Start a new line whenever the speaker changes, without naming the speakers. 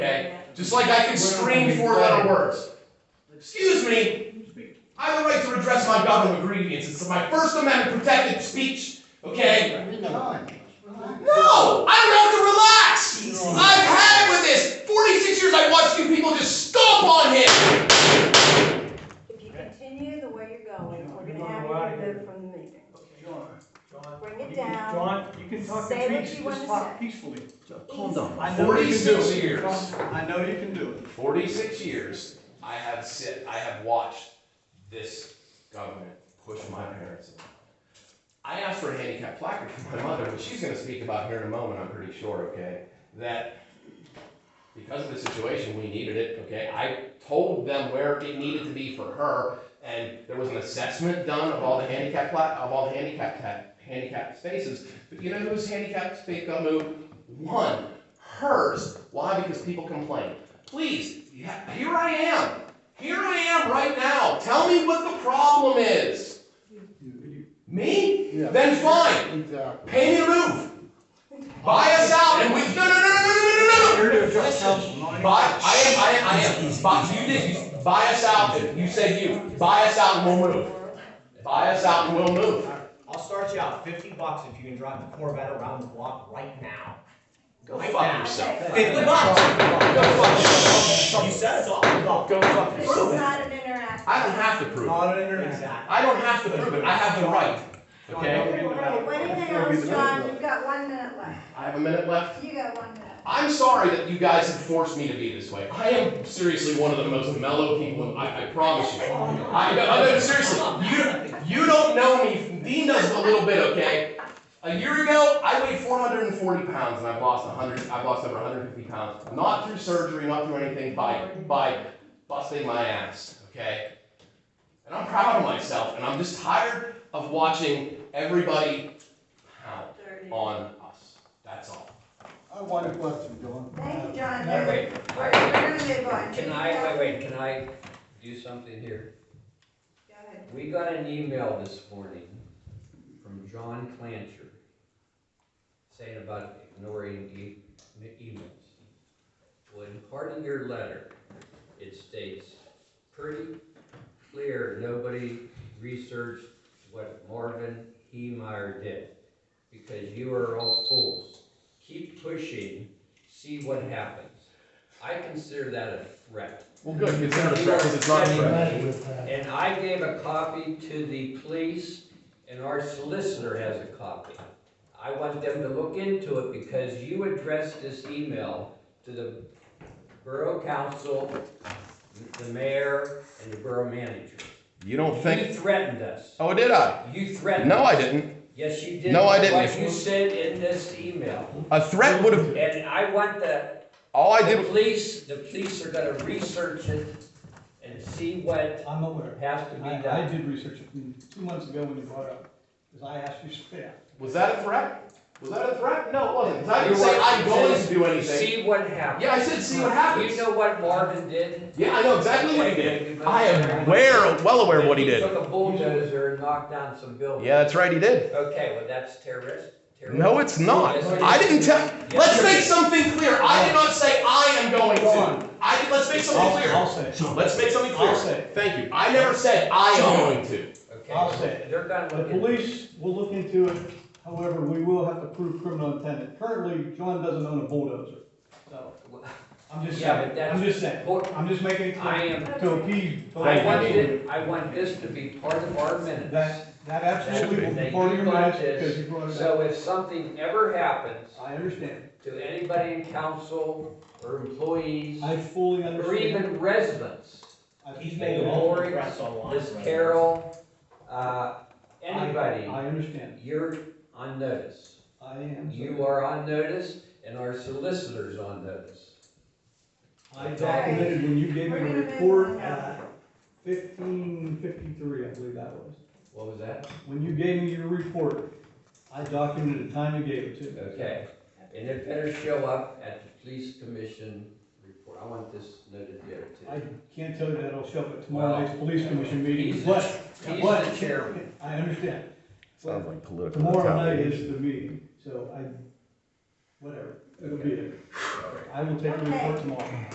Okay, just like I can scream four-letter words. Excuse me, I have a right to redress my government grievance, it's my First Amendment protected speech, okay? No, I don't have to relax! I've had it with this! Forty-six years I watched you people just stomp on him!
If you continue the way you're going, we're gonna have you removed from the meeting. Bring it down.
John, you can talk to
Say what
Teresa,
you
just
wanna
talk
say.
peacefully.
Calm down.
I know you can do it.
Forty-six years,
I know you can do it.
forty-six years, I have sit, I have watched this government push my parents. I asked for a handicap placard for my mother, but she's gonna speak about here in a moment, I'm pretty sure, okay? That because of the situation, we needed it, okay? I told them where it needed to be for her, and there was an assessment done of all the handicap pla, of all the handicap ta, handicap spaces. But you know whose handicap space got moved? One, hers. Why? Because people complain. Please, yeah, here I am. Here I am right now. Tell me what the problem is. Me? Then fine.
Exactly.
Pay me the roof. Buy us out and we, no, no, no, no, no, no, no, no, no.
You're the judge counsel, not any-
Buy, I am, I am, I am, buy, you did, you, buy us out, you said you, buy us out and we'll move. Buy us out and we'll move.
I'll start you out fifty bucks if you can drive the Corvette around the block right now.
Go
Right
fuck
now.
yourself.
Fifty bucks.
Go fuck yourself.
You said it's all about.
Go fuck
This is
yourself.
not an interactive.
I don't have to prove it.
Not an internet.
Exactly.
I don't have to prove it. I have the right, okay?
When it counts, John, you've got one minute left.
I have a minute left.
You got one minute.
I'm sorry that you guys have forced me to be this way. I am seriously one of the most mellow people, I, I promise you. I, no, no, seriously, you, you don't know me, Dean does a little bit, okay? A year ago, I weighed four hundred and forty pounds and I've lost hundred, I've lost over hundred and fifty pounds. Not through surgery, not through anything, by, by busting my ass, okay? And I'm proud of myself and I'm just tired of watching everybody pound
Thirty.
on us. That's all.
I want a question, John.
Thank you, John.
No,
We're,
wait.
we're gonna move on.
Can I, wait, wait, can I do something here?
Go ahead.
We got an email this morning from John Clancher saying about ignoring e- emails. Well, in part of your letter, it states pretty clear, nobody researched what Marvin Heemeyer did, because you are all fools. Keep pushing, see what happens. I consider that a threat.
Well, good, consider the fact that it's not a threat.
And I gave a copy to the police, and our solicitor has a copy. I want them to look into it because you addressed this email to the borough council, the mayor, and the borough manager.
You don't
You threatened us.
Oh, did I?
You threatened.
No, I
us.
didn't.
Yes, you did.
No, I didn't.
What you said in this email.
A threat would have.
And I want the,
All I
the
did.
police, the police are gonna research it and see what
I'm aware.
has to be done.
I, I did research it mm, two months ago when you brought it up, because I asked you straight out.
Was that a threat? Was that a threat? No, it wasn't. 'Cause I
You
didn't say
were-
I'm going to do anything.
See what happens.
Yeah, I said see what happens.
You know what Marvin did?
Yeah, I know exactly what he did. I am aware, well aware of what he did.
took a bulldozer and knocked down some buildings.
Yeah, that's right, he did.
Okay, well, that's terrorist. terrorist.
No, it's not. I didn't tell. Let's make something clear. I did not say I am going to. I did, let's make
I'll,
something
I'll
clear.
say it.
Let's make something
I'll
clear.
say it.
Thank you. I never said I am going to.
Okay,
I'll say it.
They're gonna
The
look into it.
police will look into it, however, we will have to prove criminal intent. Currently, John doesn't own a bulldozer, so. I'm just
Yeah, but
saying,
that's-
I'm just saying, I'm just making it
I
clear
am,
to appease.
I want it, I want this to be part of our minutes.
That, that absolutely will
That
be
you
part of your
brought
minutes
this,
because you brought it up.
So if something ever happens
I understand.
to anybody in council or employees
I fully
or
understand.
even residents,
I
He's
fully
making
understand.
all the
Lori,
press online.
Miss
right now.
Carol, uh,
I-
anybody.
I understand.
You're on notice.
I am.
You are on notice and our solicitor's on notice.
I documented when you gave me
We're
the
gonna move on
report
now.
at fifteen fifty-three, I believe that was.
What was that?
When you gave me your report, I documented the time you gave it to me.
Okay, and it better show up at the police commission report. I want this noted there
I
too.
can't tell you that I'll show up at tomorrow night's police commission meeting,
He's the-
but,
He's
but-
the chairman.
I understand.
Sounds like political
Tomorrow night
retaliation.
is the meeting, so I, whatever, it'll be there. I will take your report tomorrow.